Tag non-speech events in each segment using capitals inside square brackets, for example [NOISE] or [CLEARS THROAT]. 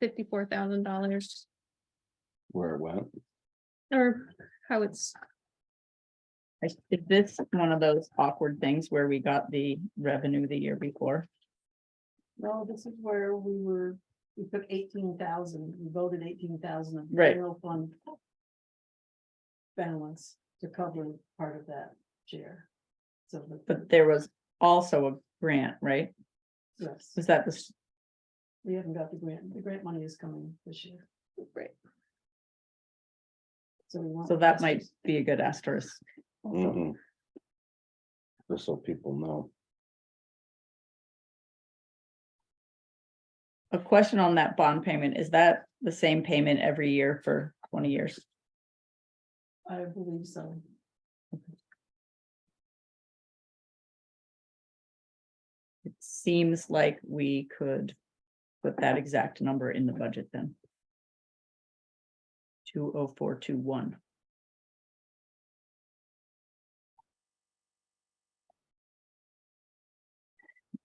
fifty-four thousand dollars where it went. or how it's, I- Is this one of those awkward things where we got the revenue the year before? No, this is where we were, we took eighteen thousand, we voted eighteen thousand of Right. general fund. Balance to cover part of that share. So the, But there was also a grant, right? yes, Is that the, s- we haven't got the grant, the grant money is coming this year. Right. So we want. so that might be a good asterisk. Mhm. Just so people know. A question on that bond payment, is that the same payment every year for twenty years? I believe so. It seems like we could put that exact number in the budget then. Two oh four two one.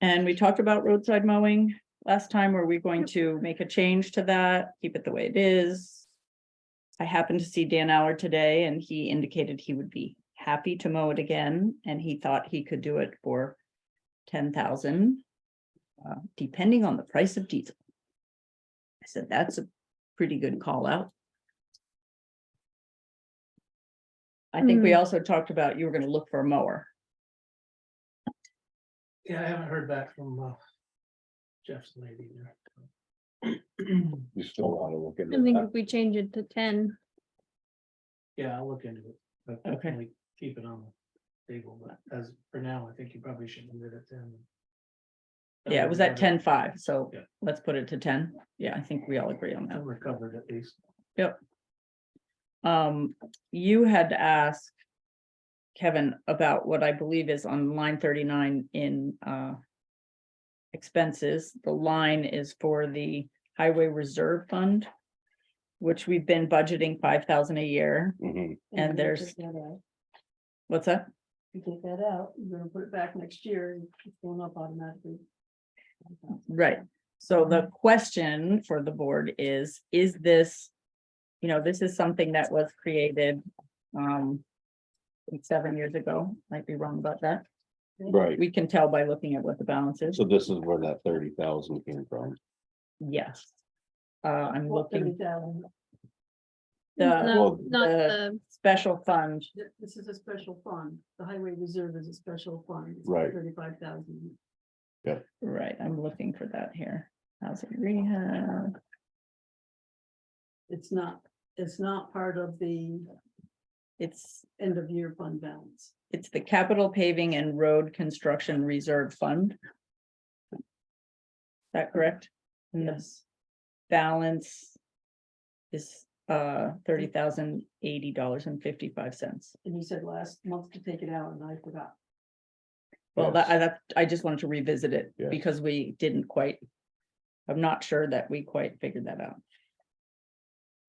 And we talked about roadside mowing last time. Were we going to make a change to that? Keep it the way it is? I happened to see Dan Hour today and he indicated he would be happy to mow it again and he thought he could do it for ten thousand. Uh, depending on the price of diesel. I said, that's a pretty good call out. I think we Hmm. also talked about you were gonna look for a mower. Yeah, I haven't heard back from uh, Jeff's lady there. You still want to look I into think that. if we change it to ten, [CLEARS THROAT] Yeah, I'll look into it. but Okay. definitely Keep it on the table, but as for now, I think you probably should leave it at ten. Yeah, it was at ten five, so Yeah. let's put it to ten. Yeah, I think we all agree on that. I'm recovered at least. Um, you had asked Kevin about what I believe is on line thirty-nine in, uh, expenses. The line is for the Highway Reserve Fund, which we've been budgeting five thousand a year. Mhm. And we there's- took that out. What's that? We take that out, we're gonna put it back next year, it's going up automatically. Right. So the question for the board is, is this, you know, this is something that was created, um, seven years ago, might be wrong about that. Mm-hmm. Right, We can tell by looking at what the balance is. so this is where that thirty thousand came from. Yes. Uh, I'm looking, 30,000. the well, not, not the- the, special fund, Th- This is a special fund. The highway reserve is a special fund. Right. Thirty-five thousand. right, I'm looking for that here. Housing rehab, It's not, it's not part of the it's, end of year fund balance. it's the capital paving and road construction reserve fund. Is that correct? And the Yes, balance is uh thirty thousand eighty dollars and fifty-five cents. and you said last month to take it out and I forgot. Well, that, I, Yes. that, I just wanted to revisit it Yes. because we didn't quite. I'm not sure that we quite figured that out.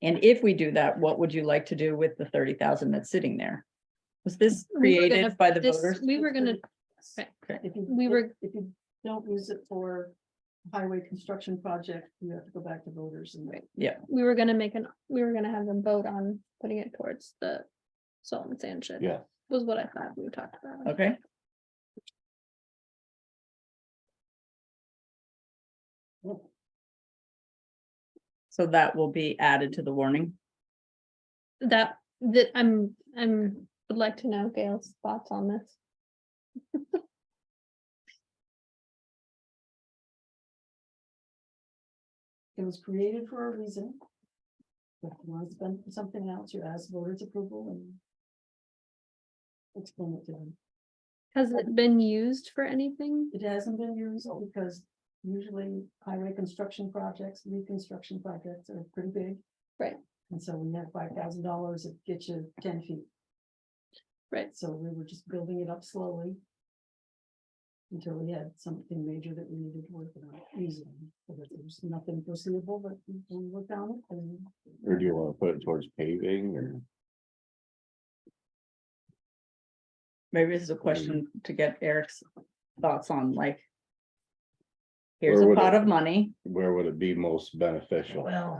And if we do that, what would you like to do with the thirty thousand that's sitting there? Was this We were gonna created by the this- voters? we were gonna, okay. If you, We were- If you don't use it for highway construction project, you have to go back to voters and. Right. we were gonna make an, we were gonna have them vote on putting it towards the salt and sand shed. Yeah. Was what I thought we talked about. Okay. So that will be added to the warning. That, that, I'm, I'm, would like to know Gail's thoughts on this. It was created for a reason. If you want to spend for something else, you ask voters approval and. Explain it to them. Has it been used for anything? It hasn't been used because usually highway construction projects, reconstruction projects are pretty big. Right. And so when you have five thousand dollars, it gets you ten feet. Right. So we were just building it up slowly. Until we had something major that we needed to work on easily, but there's nothing foreseeable, but we we worked on it and. Or do you want to put it towards paving or? Maybe this is a question to get Eric's thoughts on like. here's Or a would pot it- of money. where would it be most beneficial? Well,